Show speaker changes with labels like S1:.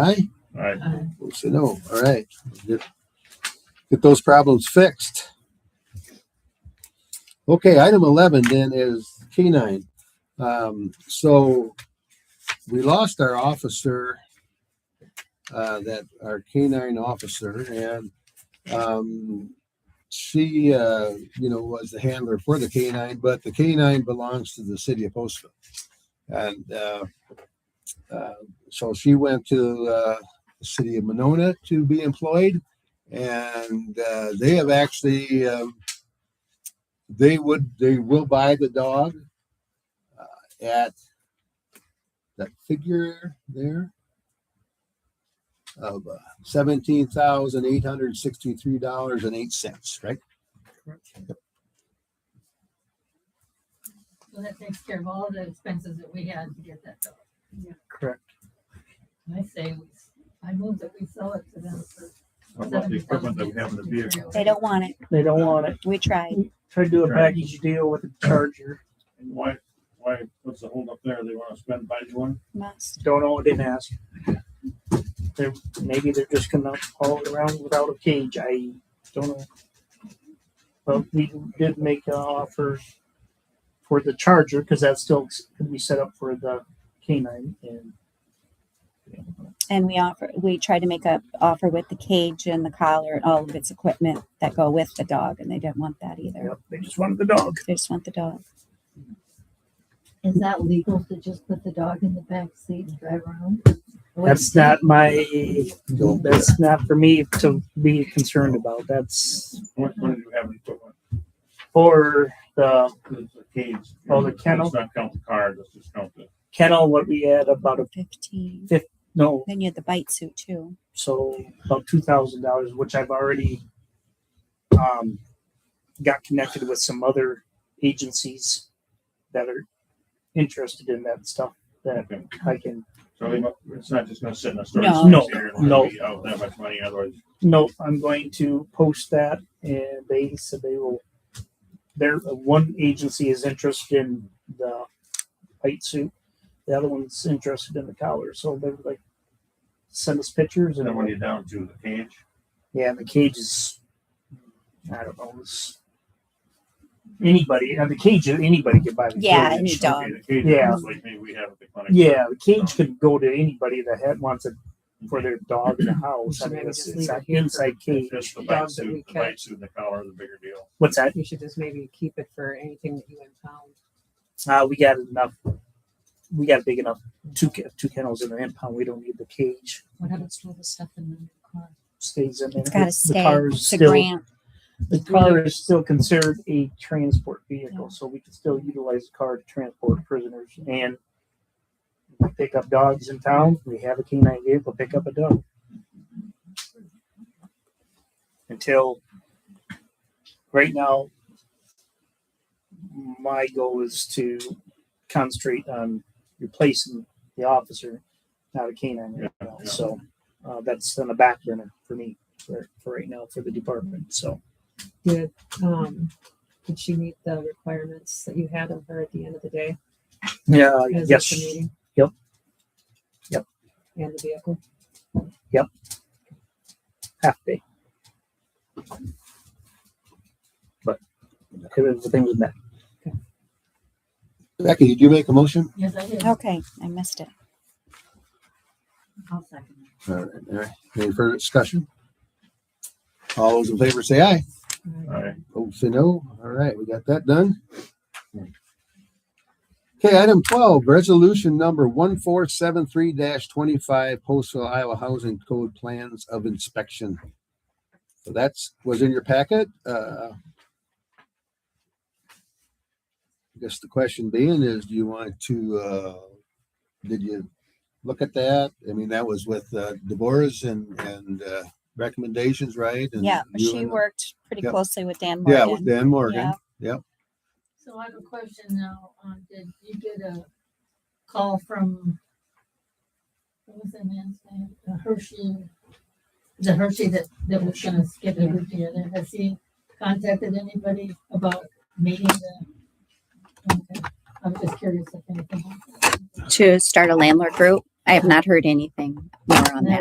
S1: Aye.
S2: Aye.
S3: Um,
S1: Opposed, say no. All right. Get, get those problems fixed. Okay, item eleven then is canine. Um, so we lost our officer, uh, that, our canine officer and, um, she, uh, you know, was the handler for the canine, but the canine belongs to the city of Postville. And, uh, uh, so she went to, uh, the city of Monona to be employed. And uh, they have actually, um, they would, they will buy the dog uh, at that figure there of uh, seventeen thousand eight hundred sixty-three dollars and eight cents, right?
S3: So that takes care of all the expenses that we had to get that dog.
S4: Correct.
S3: And I say, we s- I move that we sell it to them for
S2: What about the equipment that we have in the vehicle?
S5: They don't want it.
S4: They don't want it.
S5: We tried.
S4: Try to do a
S2: Right.
S4: package deal with the charger.
S2: And why, why, what's the holdup there? They want to spend by June?
S5: Must.
S4: Don't know, didn't ask. They're, maybe they're just gonna haul it around without a cage. I don't know. But we did make an offer for the charger because that still could be set up for the canine and
S5: And we offer, we tried to make a offer with the cage and the collar and all of its equipment that go with the dog, and they didn't want that either.
S4: Yep, they just wanted the dog.
S5: They just want the dog.
S3: Is that legal to just put the dog in the back seat and drive around?
S4: That's not my,
S1: Don't-
S4: that's not for me to be concerned about. That's
S2: What, what do you have in equipment?
S4: for the
S2: It's a cage.
S4: Oh, the kennel?
S2: Let's not count the car, let's just count the,
S4: kennel, what we had about a,
S5: Fifteen.
S4: no,
S5: Then you had the bite suit too.
S4: so about two thousand dollars, which I've already um, got connected with some other agencies that are interested in that stuff. That
S2: okay.
S4: I can
S2: So they, mu- it's not just gonna sit in a storage.
S5: No.
S4: No,
S2: space here and
S4: no.
S2: be Out that much money, otherwise
S4: no, I'm going to post that, and they said they will. There, one agency is interested in the white suit. The other one's interested in the collar. So they're like, send us pictures and
S2: then what are you down to? The cage?
S4: Yeah, the cage is. I don't know. It's, anybody, uh, the cage, anybody could buy the
S5: Yeah,
S4: cage.
S5: any dog.
S2: Okay, the cage is
S4: Yeah.
S2: Like maybe we have at the clinic.
S4: Yeah, the cage could go to anybody that had, wants it for their dog in the house. I
S6: So
S4: mean,
S6: maybe
S4: it's,
S6: just
S4: it's
S6: leave
S4: an
S6: it here for-
S4: inside cage.
S2: Just the bite
S6: Dogs that we
S2: suit, the
S6: catch.
S2: bite suit and the collar, the bigger deal.
S4: What's that?
S6: You should just maybe keep it for anything that you impound.
S4: Uh, we got enough. We got big enough two ke- two kennels in an impound. We don't need the cage.
S3: What happens to all the stuff in the car?
S4: Stays in there.
S5: It's gotta
S4: The
S5: stay.
S4: car is
S5: It's a
S4: still-
S5: grant.
S4: The car is still considered a transport vehicle, so we can still utilize the car to transport prisoners and we pick up dogs in town. We have a canine vehicle, pick up a dog. Until right now, my goal is to concentrate on replacing the officer, not a canine right now.
S2: Yeah.
S4: So uh, that's on the back burner for me for, for right now for the department. So.
S6: Did, um, did she meet the requirements that you had of her at the end of the day?
S4: Yeah,
S6: as of the
S4: Uh, yes,
S6: meeting?
S4: Yep. Yep.
S6: And the vehicle?
S4: half day. But everything was met.
S1: Becky, did you make a motion?
S3: Yes, I did.
S5: Okay, I missed it.
S3: I'll second
S1: All right, all right. Any further discussion? All those in favor say aye.
S3: it.
S2: All right.
S1: Opposed, say no. All right, we got that done. Okay, item twelve, resolution number one four seven three twenty-five, Postal Iowa Housing Code Plans of Inspection. So that's, was in your packet, uh. I Guess the question being is, do you want to, uh, did you look at that? I mean, that was with uh, Deborah's and, and, uh, recommendations, right? And
S5: Yeah,
S1: you
S5: she
S1: and-
S5: worked pretty
S1: Yep.
S5: closely with Dan
S1: Yeah, with
S5: Morgan.
S1: Dan Morgan.
S5: Yeah.
S3: So I have a question now. Um, did you get a call from, what was that man's name? Uh, Hershey? The Hershey that, that was gonna skip it with the other. Has he contacted anybody about meeting the? Okay. I'm just curious if anything. happened.
S5: To start a landlord group. I have not heard anything more on
S3: No.
S5: that.